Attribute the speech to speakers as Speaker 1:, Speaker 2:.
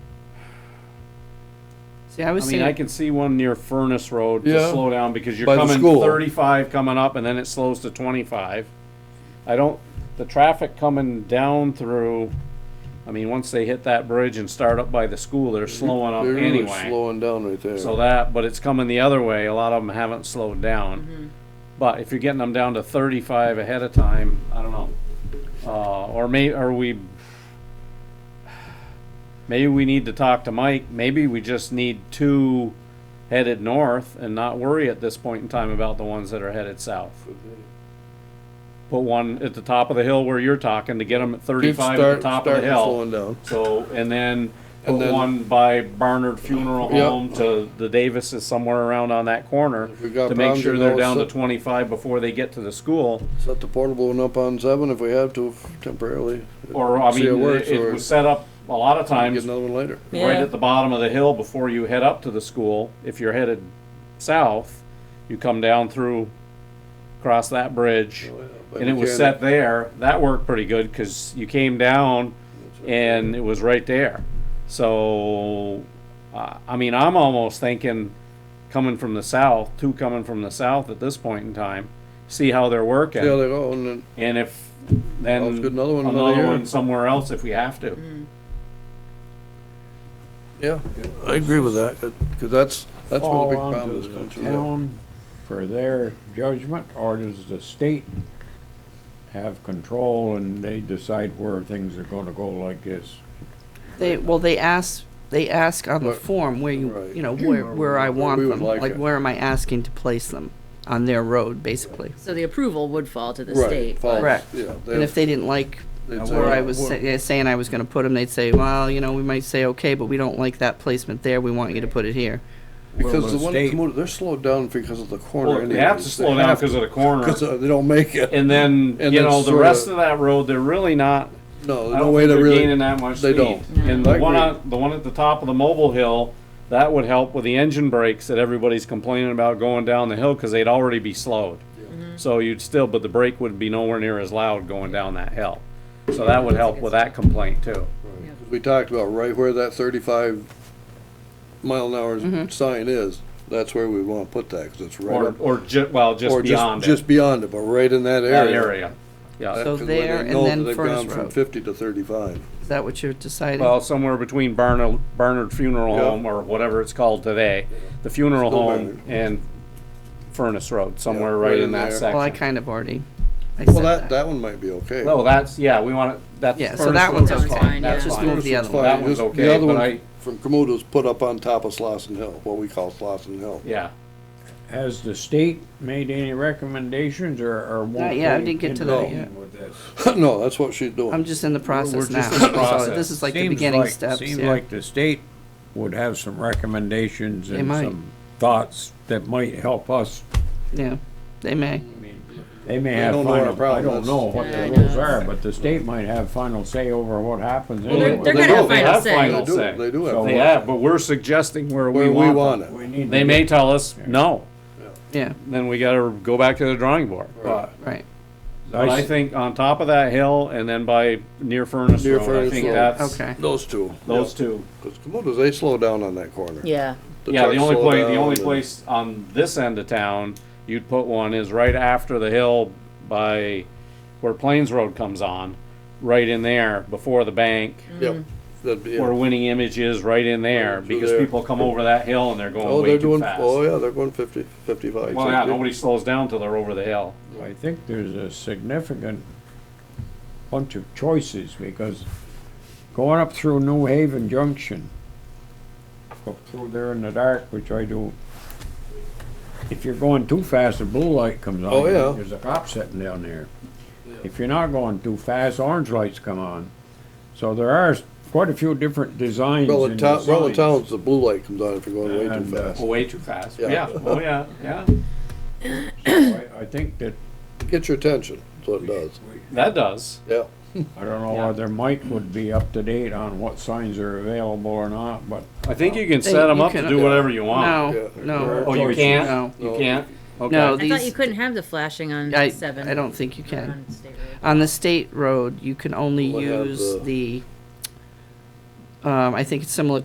Speaker 1: See, I was
Speaker 2: I mean,
Speaker 1: saying,
Speaker 2: I can see one near Furnace Road to
Speaker 3: Yeah.
Speaker 2: slow down because you're
Speaker 3: By the
Speaker 2: coming
Speaker 3: school.
Speaker 2: thirty-five coming up and then it slows to twenty-five. I don't, the traffic coming down through, I mean, once they hit that bridge and start up by the school, they're slowing up
Speaker 3: They're really
Speaker 2: anyway.
Speaker 3: slowing down right there.
Speaker 2: So that, but it's coming the other way. A lot of them haven't slowed down. But if you're getting them down to thirty-five ahead of time, I don't know. Uh, or may, are we? Maybe we need to talk to Mike. Maybe we just need two headed north and not worry at this point in time about the ones that are headed south. Put one at the top of the hill where you're talking to get them at
Speaker 3: Kids
Speaker 2: thirty-five at
Speaker 3: start,
Speaker 2: the top of
Speaker 3: start
Speaker 2: the hill.
Speaker 3: slowing down.
Speaker 2: So, and then put
Speaker 3: And then-
Speaker 2: one by Barnard Funeral
Speaker 3: Yeah.
Speaker 2: Home to the Davis is somewhere around on that corner
Speaker 3: we got
Speaker 2: to make
Speaker 3: problems,
Speaker 2: sure
Speaker 3: you
Speaker 2: they're
Speaker 3: know,
Speaker 2: down to
Speaker 3: so-
Speaker 2: twenty-five before they get to the school.
Speaker 3: Set the portable one up on seven if we have to f- temporarily.
Speaker 2: Or, I
Speaker 3: See, it
Speaker 2: mean,
Speaker 3: works,
Speaker 2: it- it
Speaker 3: or-
Speaker 2: was set up a lot of
Speaker 3: Get
Speaker 2: times
Speaker 3: another one later.
Speaker 2: right
Speaker 1: Yeah.
Speaker 2: at the bottom of the hill before you head up to the school. If you're headed south, you come down through, cross that bridge.
Speaker 3: But
Speaker 2: And it was
Speaker 3: again,
Speaker 2: set there. That worked pretty good because you came down and it was right there. So, uh, I mean, I'm almost thinking coming from the south, two coming from the south at this point in time, see how they're
Speaker 3: See how
Speaker 2: working.
Speaker 3: they go, and then
Speaker 2: And if
Speaker 3: Well,
Speaker 2: then
Speaker 3: let's get another one Mm. another year.
Speaker 2: one somewhere else if we have to.
Speaker 3: yeah, I agree with that because that's that's where the big problem is comes
Speaker 4: Fall onto
Speaker 3: from.
Speaker 4: the town for their judgment, or does the state have control and they decide where things are gonna go like this?
Speaker 1: they, well, they ask, they ask on the
Speaker 3: Right.
Speaker 1: form where you,
Speaker 3: Right.
Speaker 1: you know, where, where I want
Speaker 3: we would
Speaker 1: them.
Speaker 3: like
Speaker 1: Like,
Speaker 3: it.
Speaker 1: where am I asking to place them? On their road, basically.
Speaker 5: So the approval would fall to the
Speaker 3: Right,
Speaker 5: state.
Speaker 3: falls,
Speaker 5: but-
Speaker 1: Correct.
Speaker 3: Yeah, they-
Speaker 1: And if they didn't like
Speaker 3: they'd say,
Speaker 1: where I was
Speaker 3: well,
Speaker 1: sa- yeah, saying I was gonna put them, they'd say, well, you know, we might say, okay, but we don't like that placement there. We want you to put it here.
Speaker 4: Will
Speaker 3: because
Speaker 4: the
Speaker 3: the one
Speaker 4: state-
Speaker 3: that's moved, they're slowed down because of the corner.
Speaker 2: Well, they have to slow down because of the corner.
Speaker 3: because they don't make it.
Speaker 2: And then,
Speaker 3: And
Speaker 2: you
Speaker 3: then
Speaker 2: know, the
Speaker 3: sorta-
Speaker 2: rest of that road, they're really not,
Speaker 3: No,
Speaker 2: I
Speaker 3: there's no
Speaker 2: don't
Speaker 3: way
Speaker 2: think
Speaker 3: to
Speaker 2: they're
Speaker 3: really.
Speaker 2: gaining that much
Speaker 3: they
Speaker 2: speed.
Speaker 3: don't.
Speaker 2: And
Speaker 3: I
Speaker 2: the one
Speaker 3: agree.
Speaker 2: on, the one at the top of the mobile hill, that would help with the engine brakes that everybody's complaining about going down the hill, cause they'd already be slowed.
Speaker 1: Mm-hmm.
Speaker 2: So you'd still, but the brake would be nowhere near as loud going down that hill. So that would help with that complaint too.
Speaker 3: We talked about right where that thirty-five mile an
Speaker 1: Mm-hmm.
Speaker 3: hour sign is, that's where we wanna put that, cause it's right
Speaker 2: Or,
Speaker 3: up.
Speaker 2: or ju, well, just
Speaker 3: or
Speaker 2: beyond
Speaker 3: Just
Speaker 2: it,
Speaker 3: beyond it, but right in that
Speaker 2: that
Speaker 3: area.
Speaker 2: area. Yeah,
Speaker 3: That's
Speaker 1: So
Speaker 3: 'cause where they
Speaker 1: there and
Speaker 3: know that
Speaker 1: then
Speaker 3: they've
Speaker 1: Furnace
Speaker 3: gone From
Speaker 1: Road.
Speaker 3: fifty to thirty-five.
Speaker 1: Is that what you're deciding?
Speaker 2: well, somewhere between Barnard, Barnard Funeral
Speaker 3: Yeah.
Speaker 2: Home or whatever it's called today, the funeral
Speaker 3: Still
Speaker 2: home and Furnace Road, somewhere
Speaker 3: Yeah,
Speaker 2: right
Speaker 3: right
Speaker 2: in
Speaker 3: in
Speaker 2: that
Speaker 3: there.
Speaker 2: section.
Speaker 1: Well, I kind of already, I
Speaker 3: Well,
Speaker 1: said
Speaker 3: that,
Speaker 1: that.
Speaker 3: that one might be okay.
Speaker 2: No, that's, yeah, we want it, that's.
Speaker 1: Yeah, so
Speaker 2: furnace
Speaker 1: that one's
Speaker 2: road's
Speaker 5: okay.
Speaker 2: fine, That's
Speaker 5: Just
Speaker 2: fine.
Speaker 1: move the other one.
Speaker 2: That one's
Speaker 3: Just-
Speaker 2: okay,
Speaker 3: The other
Speaker 2: but
Speaker 3: one
Speaker 2: I-
Speaker 3: from Kamuta's put up on top of Slosson Hill, what we call Slosson Hill.
Speaker 2: Yeah,
Speaker 4: Has the state made any recommendations or, or won't
Speaker 1: Not yet, I
Speaker 4: they
Speaker 1: didn't get to
Speaker 4: involve
Speaker 1: that yet.
Speaker 4: them with this?
Speaker 3: No, that's what she's
Speaker 1: I'm
Speaker 3: doing.
Speaker 1: just in the process
Speaker 2: just
Speaker 1: now.
Speaker 2: in the
Speaker 1: So
Speaker 2: process.
Speaker 1: this is like the
Speaker 4: Seems
Speaker 1: beginning
Speaker 4: like-
Speaker 1: steps,
Speaker 4: Seems
Speaker 1: yeah.
Speaker 4: like the state would have some recommendations
Speaker 1: They
Speaker 4: and
Speaker 1: might.
Speaker 4: some thoughts that might help us.
Speaker 1: Yeah, they may.
Speaker 4: They may
Speaker 3: They
Speaker 4: have
Speaker 3: don't know our
Speaker 4: final, I
Speaker 3: problem,
Speaker 4: don't
Speaker 3: that's-
Speaker 4: know what
Speaker 5: Yeah, I
Speaker 4: the rules
Speaker 5: know.
Speaker 4: are, but the state might have final say over what happens
Speaker 2: they're-
Speaker 4: anyway.
Speaker 5: They're
Speaker 2: They
Speaker 5: gonna
Speaker 2: do,
Speaker 5: have
Speaker 2: they
Speaker 5: final
Speaker 2: have
Speaker 5: say.
Speaker 2: final
Speaker 3: They do,
Speaker 2: say.
Speaker 3: they do have.
Speaker 2: they
Speaker 3: one.
Speaker 2: have, but we're suggesting where we
Speaker 3: Where we
Speaker 2: want
Speaker 3: want
Speaker 2: them.
Speaker 3: it.
Speaker 4: We need
Speaker 2: They
Speaker 4: to
Speaker 2: may
Speaker 4: get-
Speaker 2: tell us, no,
Speaker 1: Yeah,
Speaker 2: then we gotta go back to the drawing board. But
Speaker 1: right.
Speaker 2: but I
Speaker 4: s-
Speaker 2: think on top of that hill and then by near Furnace
Speaker 3: Near
Speaker 2: Road, I
Speaker 3: Furnace
Speaker 2: think
Speaker 3: Road.
Speaker 2: that's,
Speaker 1: Okay.
Speaker 3: Those two.
Speaker 2: those two.
Speaker 3: Cause Kamuta's, they slow down on that corner.
Speaker 5: Yeah,
Speaker 2: Yeah, the
Speaker 3: trucks
Speaker 2: only
Speaker 3: slow
Speaker 2: place, the
Speaker 3: down
Speaker 2: only
Speaker 3: and-
Speaker 2: place on this end of town you'd put one is right after the hill by where Plains Road comes on, right in there before the bank,
Speaker 3: Yep. That'd be,
Speaker 2: where
Speaker 3: yeah.
Speaker 2: Winning Image is, right in there,
Speaker 3: Through
Speaker 2: because
Speaker 3: there.
Speaker 2: people come over that hill and they're
Speaker 3: Oh,
Speaker 2: going way
Speaker 3: they're
Speaker 2: too
Speaker 3: doing,
Speaker 2: fast.
Speaker 3: oh
Speaker 2: Well,
Speaker 3: yeah, they're going fifty, fifty-five.
Speaker 2: yeah,
Speaker 3: 60.
Speaker 2: nobody slows down till they're over the hill.
Speaker 4: I think there's a significant bunch of choices because going up through New Haven Junction, up through there in the dark, which I do, if you're going too fast, the blue light comes on.
Speaker 3: Oh, yeah.
Speaker 4: There's a cop sitting down there. If you're not going too fast, orange lights come on. So there are s- quite a few different designs.
Speaker 3: Well, in
Speaker 4: in
Speaker 3: town,
Speaker 4: the
Speaker 3: well, in
Speaker 4: signs.
Speaker 3: towns, the blue light comes on if you're going way too
Speaker 4: And, uh,
Speaker 3: fast.
Speaker 2: Oh, Way too fast.
Speaker 3: Yeah.
Speaker 2: Yeah, oh, yeah, yeah.
Speaker 4: I I think that,
Speaker 3: Get your attention, that's what it does.
Speaker 2: That does.
Speaker 3: Yeah,
Speaker 4: I don't
Speaker 2: Yeah.
Speaker 4: know whether Mike would be up to date on what signs are available or not, but
Speaker 2: I think you can
Speaker 1: They-
Speaker 2: set them
Speaker 1: you
Speaker 2: up to
Speaker 1: can-
Speaker 2: do whatever you want.
Speaker 1: No,
Speaker 3: Yeah.
Speaker 2: Oh,
Speaker 1: no,
Speaker 2: you
Speaker 4: Choices.
Speaker 2: can't?
Speaker 1: No.
Speaker 2: You
Speaker 3: No.
Speaker 2: can't?
Speaker 1: no.
Speaker 2: Okay.
Speaker 5: I thought you
Speaker 1: These,
Speaker 5: couldn't have the flashing on
Speaker 1: I,
Speaker 5: seven. Uh-huh.
Speaker 1: I don't think you can.
Speaker 5: on state road.
Speaker 1: On the state road, you can only
Speaker 3: We'll have
Speaker 1: use
Speaker 3: the-
Speaker 1: the, um, I think it's similar